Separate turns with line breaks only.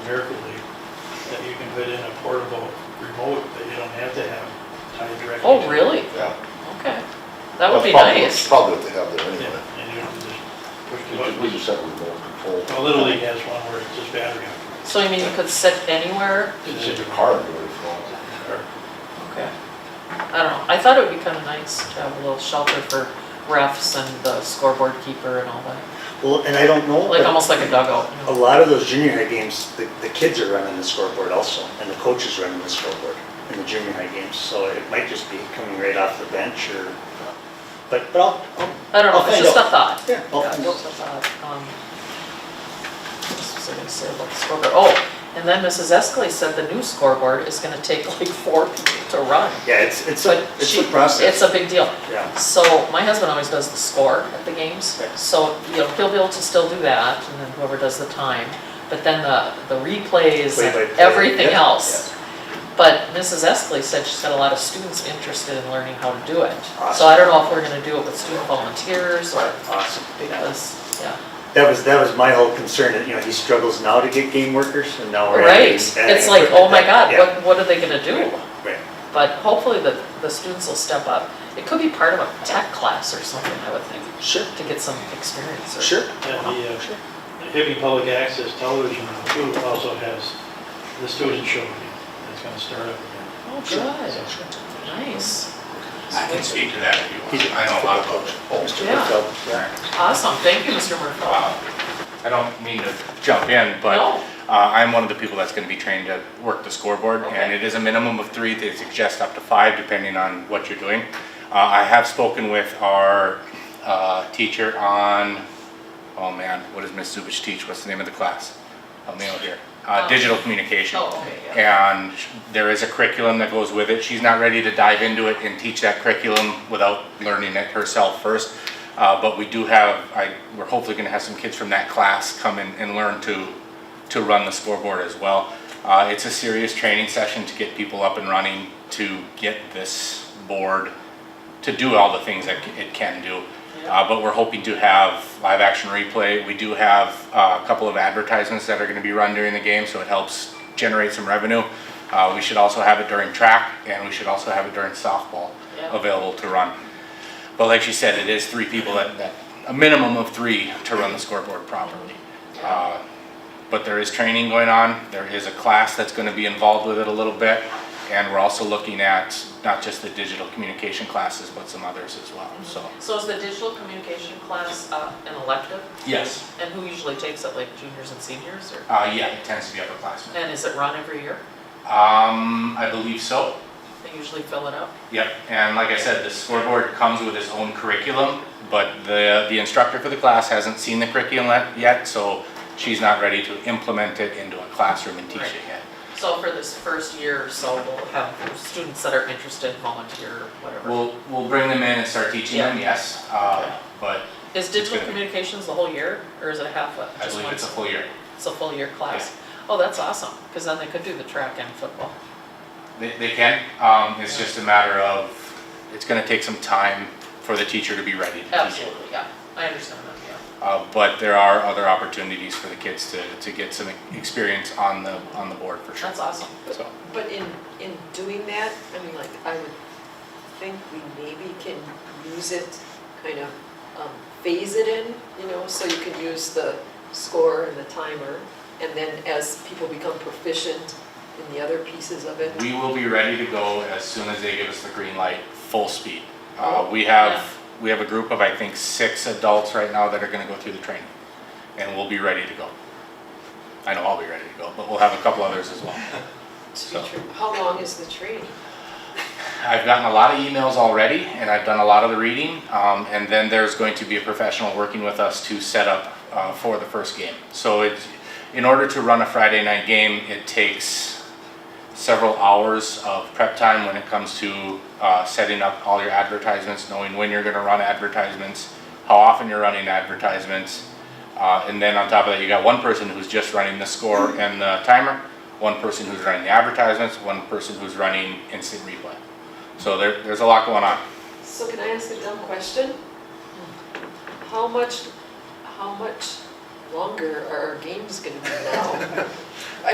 Miracle League, that you can put in a portable remote that you don't have to have tied directly.
Oh,
to-
really?
yeah.
Okay. That would
That's
be
probably-
nice.
Probably what they have there
Yeah,
anyway.
and you don't just push the
We just- We
button.
just have remote control.
Well, Little League has one where it's just battery.
So you mean you could sit anywhere?
It's in your car, and do it if you want.
Okay. I don't know. I thought it would be kind of nice to have a little shelter for refs and the scoreboard keeper and all that.
Well, and I don't know,
Like,
but
almost like a dugout. you know?
a lot of those junior high games, the, the kids are running the scoreboard also, and the coaches running the scoreboard in the junior high games, so it might just be coming right off the bench or, but, but I'll, I'll,
I don't know,
I'll
it's
find
just a
out.
thought.
Yeah, I'll
Yeah,
find
just a thought. Um, What was I gonna say about the scoreboard? Oh, and then Mrs. Escalay said the new scoreboard is gonna take like four people to run.
yeah, it's, it's a,
But
it's
she-
a process.
It's a big deal.
Yeah,
So my husband always does the score at the games,
Yeah.
so, you know, he'll be able to still do that, and then whoever does the time. But then the, the replays and
Play-by-play,
everything
yeah,
else. But Mrs. Escalay said she's got a lot of students interested in learning how to do it. So
Awesome.
I don't know if we're gonna do it with student volunteers or,
awesome.
because, yeah.
That was, that was my whole concern, that, you know, he struggles now to get game workers, and now we're.
Right,
adding- adding
it's like, oh
equipment
my
that-
God,
yeah,
what, what are they gonna do?
Right,
But hopefully the, the students will step up. It could be part of a tech class or something, I would think,
sure,
to get some experience or.
sure.
And the uh, Hippie Public Access Television too also has the student show again. It's gonna start up again.
Oh,
Sure.
good, nice,
I can speak to that if you want. I know a lot about it.
Oh, Mr.
Yeah.
Whitfield, yeah.
awesome, thank you, Mr. Murphy.
Uh, I don't mean to jump in, but
No.
uh, I'm one of the people that's going to be trained to work the scoreboard. And
Okay.
it is a minimum of three. They suggest up to five depending on what you're doing. Uh, I have spoken with our uh, teacher on, oh man, what does Ms. Zubich teach? What's the name of the class? Help me out here. Uh,
Um,
Digital communication.
Oh, okay, yeah.
And sh- there is a curriculum that goes with it. She's not ready to dive into it and teach that curriculum without learning it herself first. Uh, but we do have, I, we're hopefully gonna have some kids from that class come and, and learn to, to run the scoreboard as well. Uh, it's a serious training session to get people up and running, to get this board to do all the things that c- it can do.
Yeah.
Uh, but we're hoping to have live action replay. We do have uh, a couple of advertisements that are going to be run during the game, so it helps generate some revenue. Uh, we should also have it during track, and we should also have it during softball
Yeah.
available to run. But like she said, it is three people that, that a minimum of three to run the scoreboard properly. Uh, but there is training going on. There is a class that's going to be involved with it a little bit. And we're also looking at not just the digital communication classes, but some others as well, so.
So is the digital communication class uh, an elective,
Yes.
and who usually takes it, like juniors and seniors, or,
Uh, yeah, it tends to be upperclassmen.
and is it run every year?
Um, I believe so.
They usually fill it up?
Yep, and like I said, the scoreboard comes with its own curriculum, but the, the instructor for the class hasn't seen the curriculum let- yet, so she's not ready to implement it into a classroom and teach it yet.
So for this first year or so, we'll have students that are interested, volunteer, whatever.
We'll, we'll bring them in and start teaching them, yes, uh, but
Is digital
good.
communications the whole year, or is it half a,
I
just
believe
one?
it's a full year.
It's a full year class? Oh, that's awesome, because then they could do the track and football.
They, they can, um, it's just a matter of, it's gonna take some time for the teacher to be ready to teach it.
Absolutely, yeah, I understand that, yeah.
Uh, but there are other opportunities for the kids to, to get some experience on the, on the board for sure.
That's awesome.
So,
But in, in doing that, I mean, like, I would think we maybe can use it, kind of um, phase it in, you know, so you can use the score and the timer, and then as people become proficient in the other pieces of it.
we will be ready to go as soon as they give us the green light, full speed. Uh, we have, we have a group of, I think, six adults right now that are gonna go through the training, and we'll be ready to go. I know I'll be ready to go, but we'll have a couple others as well.
To
so.
be true, how long is the training?
I've gotten a lot of emails already, and I've done a lot of the reading. Um, and then there's going to be a professional working with us to set up uh, for the first game. So it's, in order to run a Friday night game, it takes several hours of prep time when it comes to uh, setting up all your advertisements, knowing when you're going to run advertisements, how often you're running advertisements. Uh, and then on top of that, you got one person who's just running the score and the timer, one person who's running the advertisements, one person who's running instant replay. So there, there's a lot going on.
So can I ask a dumb question? How much, how much longer are our games gonna be now?